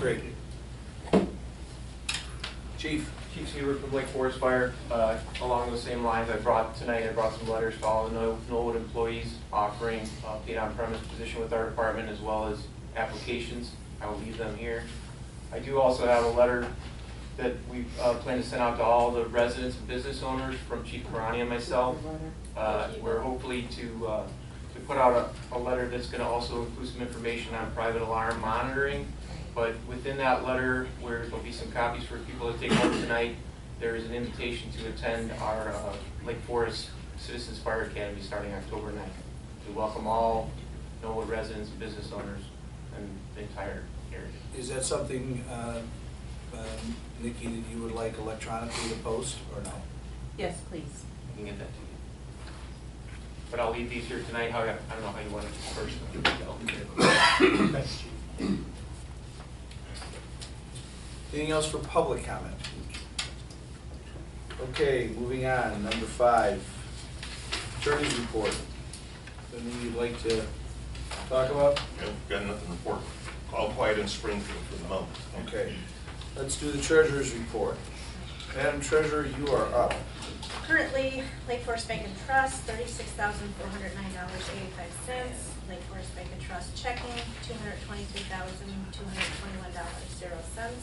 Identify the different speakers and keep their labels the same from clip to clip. Speaker 1: Great. Chief,
Speaker 2: Chief Seaver from Lake Forest Fire, uh, along those same lines, I brought, tonight I brought some letters to all the Knoll- Knollwood employees offering uh, paid on-premise position with our department as well as applications. I will leave them here. I do also have a letter that we uh, plan to send out to all the residents and business owners from Chief Karani and myself. Uh, We're hopefully to, uh, to put out a, a letter that's going to also include some information on private alarm monitoring. But within that letter, where there'll be some copies for people to take home tonight, there is an invitation to attend our uh, Lake Forest Citizens Fire Academy starting October 9th. To welcome all Norwood residents, and business owners, and the entire area.
Speaker 1: is that something, uh, um, Nikki, that you would like electronically to post or no?
Speaker 3: Yes, please.
Speaker 2: I can get that to you. But I'll leave these here tonight, how, I don't know how you want it dispersed.
Speaker 1: Anything else for public comment? Okay, moving on, number five, attorney's report. Anything you'd like to talk about?
Speaker 4: Yep, Got nothing to report. All quiet in Springfield for the moment.
Speaker 1: Okay, let's do the treasurer's report. Madam Treasurer, you are up.
Speaker 5: Currently, Lake Forest Bank and Trust, thirty-six thousand four hundred nine dollars eighty-five cents. Lake Forest Bank and Trust checking, two hundred twenty-three thousand two hundred twenty-one dollars zero cents.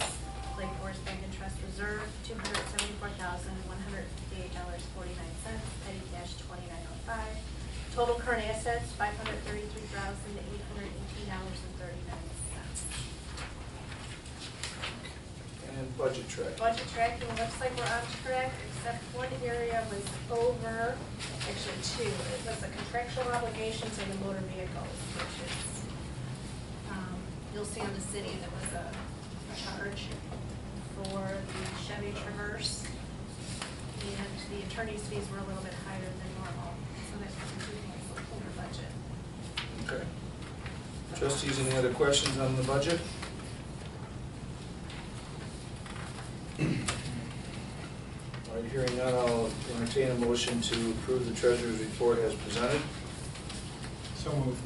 Speaker 5: Lake Forest Bank and Trust Reserve, two hundred seventy-four thousand one hundred fifty-eight dollars forty-nine cents, petty cash twenty-nine oh five. Total current assets, five hundred thirty-three thousand eight hundred eighteen dollars and thirty-nine cents.
Speaker 1: And budget track.
Speaker 5: budget tracking, looks like we're on track, except one area was over, actually two. It was the contractual obligations and the motor vehicles, which is, um, you'll see on the city, there was a a charge for the Chevy Traverse. And the attorney's fees were a little bit higher than normal, so that's including the over budget.
Speaker 1: Okay. Trustees, any other questions on the budget? All right, hearing none, I'll entertain a motion to approve the treasurer's report as presented.
Speaker 6: So moved.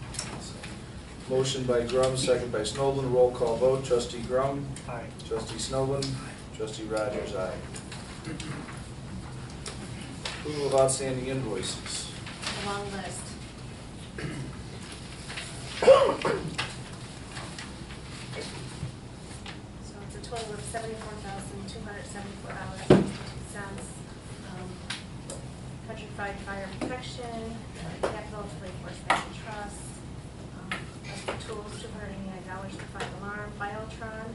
Speaker 1: Motion by Grum, second by Snoblin, roll call vote, trustee Grum,
Speaker 6: Aye.
Speaker 1: trustee Snoblin, trustee Rogers, aye. Approval of outstanding invoices.
Speaker 5: A long list. So it's a total of seventy-four thousand, two hundred seventy-four dollars and sixty-two cents. Um, Countrywide Fire Protection, uh, Capital to Lake Forest Bank and Trust, um, Rescue Tools, two hundred eighty-nine dollars for Five Alarm, Biotron,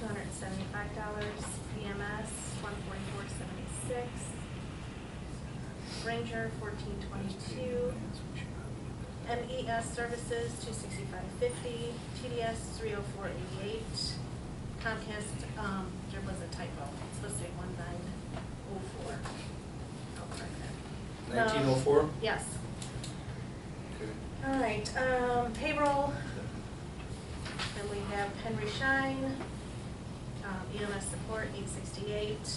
Speaker 5: two hundred seventy-five dollars, EMS, one forty-four seventy-six, Ranger fourteen twenty-two, MES Services two sixty-five fifty, TDS three oh four eighty-eight, Comcast, um, there was a typo, it's supposed to be one nine oh four. I'll correct that.
Speaker 1: Nineteen oh
Speaker 5: Um,
Speaker 1: four?
Speaker 5: Yes, all right, um, payroll, then we have Henry Shine, um, EMS support, eight sixty-eight.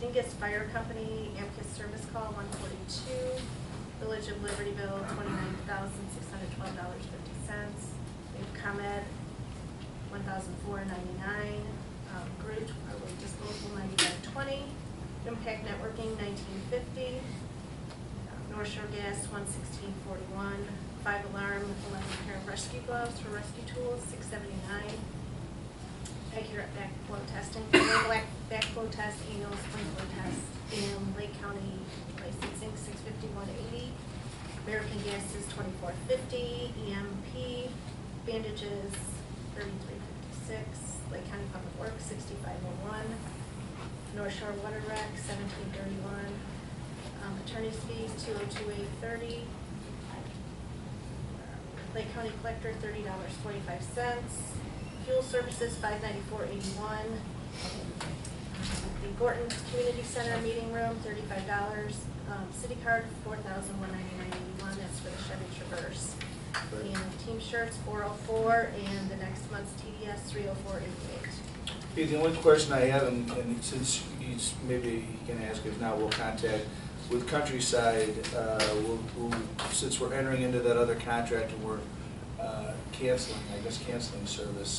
Speaker 5: Dingus Fire Company, Amicus Service Call, one forty-two. Village of Libertyville, twenty-nine thousand, six hundred twelve dollars, fifty cents. We have ComEd, one thousand, four ninety-nine. Um, Groot, Public Disposal, ninety-nine twenty. Impact Networking, nineteen fifty. North Shore Gas, one sixteen forty-one. Five Alarm, eleven pair of rescue gloves for rescue tools, six seventy-nine. Accurate backflow testing, Clear black backflow test, annual sprinkler test in Lake County licensing, six fifty-one eighty. American Gas is twenty-four fifty, EMP, bandages, thirty-three fifty-six, Lake County Public Works, sixty-five oh one, North Shore Water Rec, seventeen thirty-one, um, attorney's fees, two oh two eight thirty. Lake County Collector, thirty dollars forty-five cents. Fuel services, five ninety-four eighty-one. The Gorton Community Center Meeting Room, thirty-five dollars. Um, city card, four thousand one ninety-nine eighty-one, that's for the Chevy Traverse.
Speaker 1: Right.
Speaker 5: And team shirts, four oh four, and the next month's TDS, three oh four eighty-eight.
Speaker 1: Hey, the only question I have, and, and since he's, maybe he can ask, if not, we'll contact, with Countryside, uh, we'll, we'll, since we're entering into that other contract and we're, uh, canceling, I guess canceling service,